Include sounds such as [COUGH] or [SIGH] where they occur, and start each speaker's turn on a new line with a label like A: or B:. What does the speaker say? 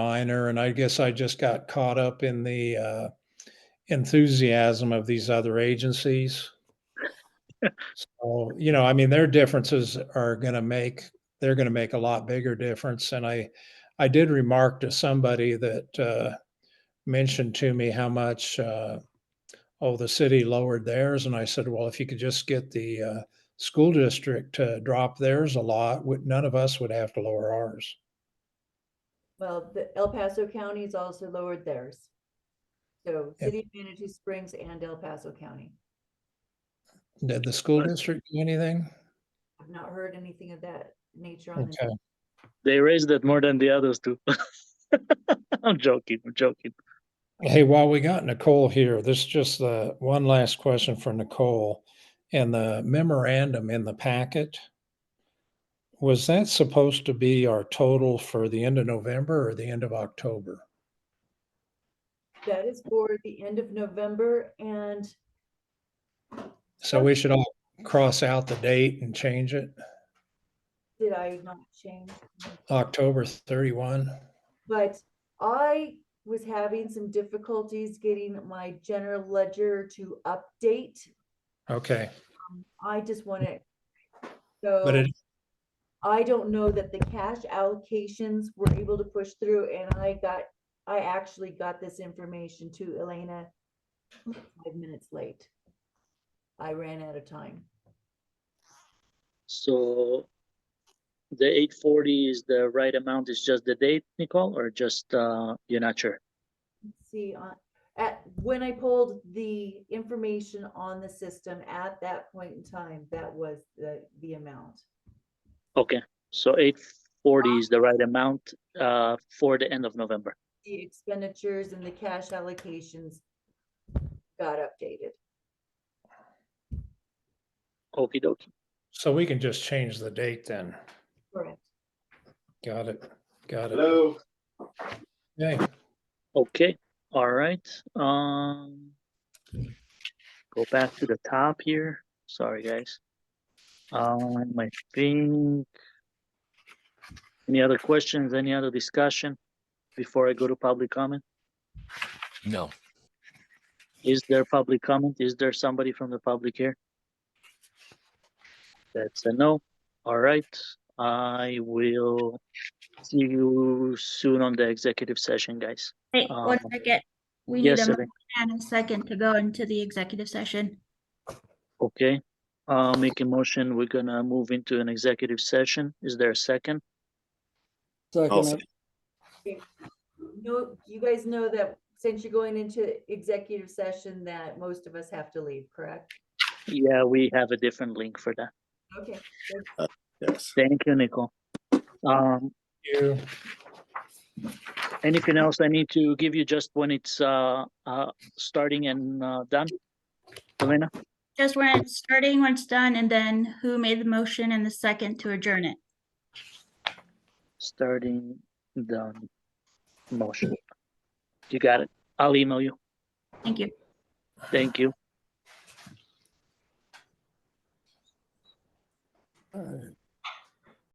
A: minor, and I guess I just got caught up in the uh, enthusiasm of these other agencies. So, you know, I mean, their differences are going to make, they're going to make a lot bigger difference. And I, I did remark to somebody that uh, mentioned to me how much, uh, oh, the city lowered theirs. And I said, well, if you could just get the uh, school district to drop theirs a lot, would- none of us would have to lower ours.
B: Well, the El Paso County has also lowered theirs. So
A: Yeah.
B: City of Manatee Springs and El Paso County.
A: Did the school district do anything?
B: I've not heard anything of that nature on this.
A: Okay.
C: They raised it more than the others do. [LAUGHS] I'm joking. I'm joking.
A: Hey, while we got Nicole here, this is just uh, one last question for Nicole. And the memorandum in the packet, was that supposed to be our total for the end of November or the end of October?
B: That is for the end of November and
A: So we should all cross out the date and change it,
B: did I not change?
A: October 31.
B: But I was having some difficulties getting my general ledger to update.
A: Okay,
B: I just want to. So.
A: but it,
B: I don't know that the cash allocations were able to push through and I got, I actually got this information to Elena five minutes late. I ran out of time.
C: So the 840 is the right amount. It's just the date, Nicole, or just uh, you're not sure?
B: Let's See, uh, at, when I pulled the information on the system at that point in time, that was the, the amount.
C: Okay. So 840 is the right amount uh, for the end of November.
B: The expenditures and the cash allocations got updated.
C: Okie dokie.
A: so we can just change the date then.
B: Correct.
A: Got it, got it.
D: Hello,
A: Okay.
C: Okay, all right, um. Go back to the top here, sorry, guys. Um, I think. Any other questions, any other discussion before I go to public comment?
E: No.
C: Is there public comment? Is there somebody from the public here? That's a no. All right, I will see you soon on the executive session, guys.
F: Hey,
C: Um,
F: one second. We need
C: Yes,
F: a
C: Evan,
F: motion and a second to go into the executive session.
C: okay. Uh, make a motion, we're gonna move into an executive session. Is there a second?
D: I'll say-
B: No, you guys know that since you're going into executive session, that most of us have to leave, correct?
C: Yeah, we have a different link for that.
B: Okay.
D: yes.
C: Thank you, Nicole. Um,
A: You,
C: anything else I need to give you just when it's, uh, uh, starting and, uh, done? Elena,
F: Just when it's starting, when it's done, and then who made the motion and the second to adjourn it?
C: starting, done, motion. You got it. I'll email you.
F: Thank you.
C: Thank you.
D: All right.